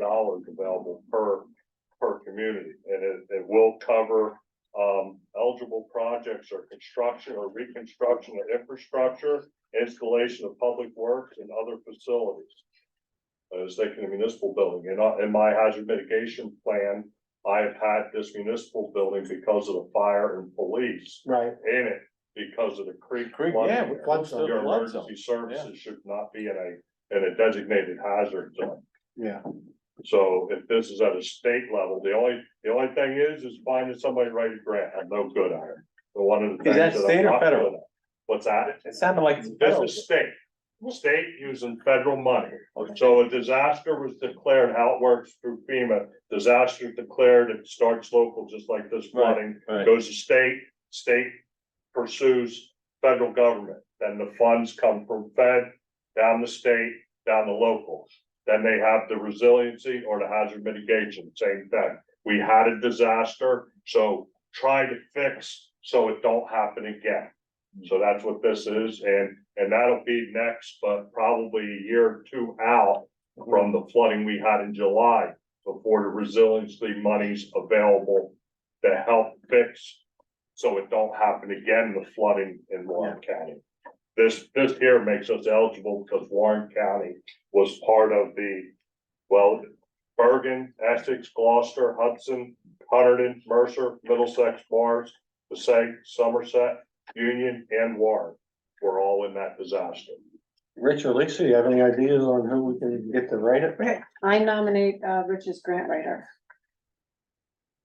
dollars available per, per community, and it, it will cover. Um, eligible projects or construction or reconstruction of infrastructure, installation of public works and other facilities. Uh, I was thinking of municipal building, and I- in my hazard mitigation plan, I have had this municipal building because of the fire and police Right. in it because of the creek. Creek, flooding yeah, area. flood zone, Your flood zone, emergency services should not be in a, in a designated hazard zone. Yeah. So if this is at a state level, the only, the only thing is, is finding somebody to write a grant. I'm no good at it. The one of the. Is that things I'm state or not good federal? at. What's that? It sounded like. it's This federal. is state, state using federal money. So a disaster was declared, how it works through FEMA, disaster declared, it starts local, just like this Right. flooding Right. goes to state, state pursues federal government, then the funds come from fed, down the state, down the locals. Then they have the resiliency or the hazard mitigation, same thing. We had a disaster, so try to fix so it don't happen again. So that's what this is, and, and that'll be next, but probably a year or two out from the flooding we had in July before the resiliency money's available to help fix so it don't happen again, the flooding in Warren County. This, this here makes us eligible because Warren County was part of the, well, Bergen, Essex, Gloucester, Hudson, Hunterdon, Mercer, Middlesex, Mars, Passaic, Somerset, Union, and Warren were all in that disaster. Rich or Lisa, you have any ideas on who we can get to write it? I nominate uh Rich's grant writer.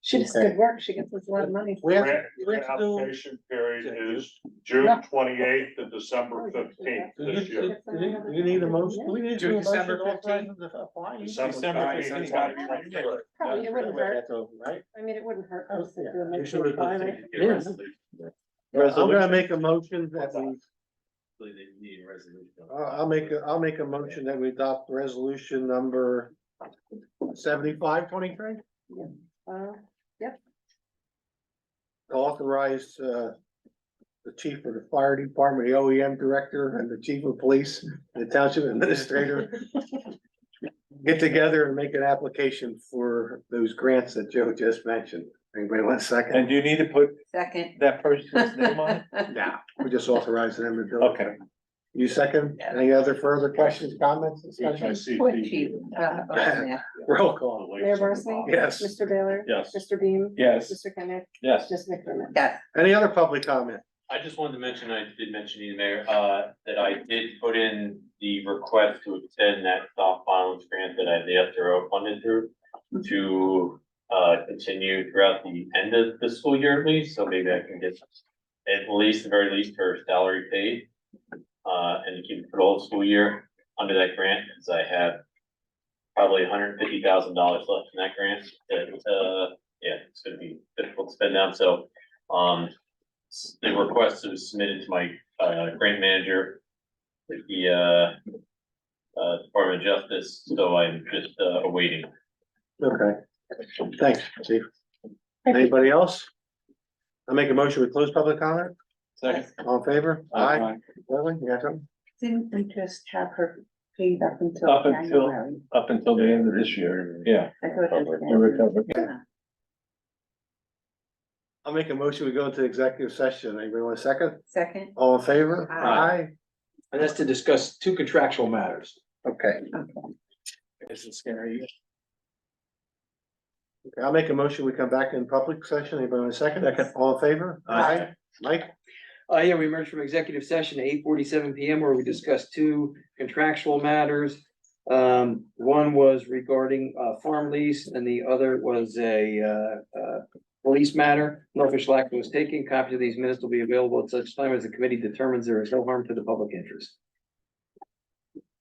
She does good work. She gets us a lot of money. We have, Grant, we have grant to do. application period is June twenty-eighth to December fifteenth do You this year. do you- do you need a motion, do we need to Do do a motion December to authorize them to apply? You- December December 15th, fifteenth. 2023. Probably it wouldn't hurt. Right? I mean, it wouldn't hurt. Oh, us if yeah. we make You sure we find it. Yes. I'm gonna make a motion that we, I'll, I'll make, a- I'll make a motion that we adopt resolution number seventy-five twenty-three. Uh, authorize uh the chief of the fire department, the OEM director, and the chief of police, the township administrator. Get together and make an application for those grants that Joe just mentioned. Anybody want a second? And do you need to put Second. that person's name on it? No, we just authorize them to do it. Okay. You second? Any other further questions, comments, discussion? Uh, oh, Roll call. Mayor Barsney? Yes. Mr. Baylor? Yes. Mr. Beam? Yes, Mr. Kenneth? yes. Mr. McDermott? Yes, Any other public comment? I just wanted to mention, I did mention to you, Mayor, uh, that I did put in the request to extend that soft violence grant that I, the SRO funded through to, uh, continue throughout the end of the school year at least, so maybe I can get at least, the very least, her salary paid, uh, and to keep it for the whole school year under that grant, because I have probably hundred and fifty thousand dollars left in that grant, that, uh, yeah, it's gonna be difficult to spend now, so, um, s- the request was submitted to my uh grant manager. With the uh uh Department of Justice, so I'm just uh awaiting. Okay. Thanks, chief. Anybody else? I make a motion, we close public comment? Second. All in favor? Aye. Lily, you got something? didn't we just have her paid up until Up until- January? Up until the end of this year, yeah. I thought it was We recovered. January. I'll make a motion, we go into executive session, anybody want a second? Second, All in favor? Aye. And that's to discuss two contractual matters. Aye. Okay, okay. This is scary. Okay, I'll make a motion, we come back in public session, anybody want a second? All in favor? Aye. Mike, Uh, yeah, we emerged from executive session at eight forty-seven PM where we discussed two contractual matters. Um, one was regarding, uh, farm lease and the other was a, uh, uh, police matter. Norfolk Schlack was taken. Copies of these minutes will be available at such time as the committee determines there is no harm to the public interest.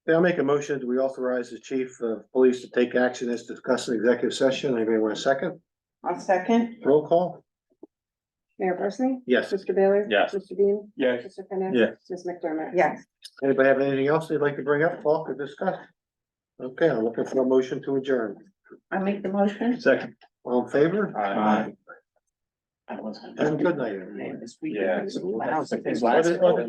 Yeah, I'll make a motion, do we authorize the chief of police to take action as discussed in executive session, anybody want a second? I'll second, Roll call? Mayor Barsney? Yes, Mr. Baylor? Yes. Mr. Beam? Yes. Mr. Kenneth? Yes. Ms. McDermott? yes, anybody have anything else they'd like to bring up, talk or discuss? Okay, I'm looking for a motion to adjourn, I make the motion. Second. all in favor? Aye. And good night, everyone. Man, this Yeah. weekend. Wow, it's like- Why did-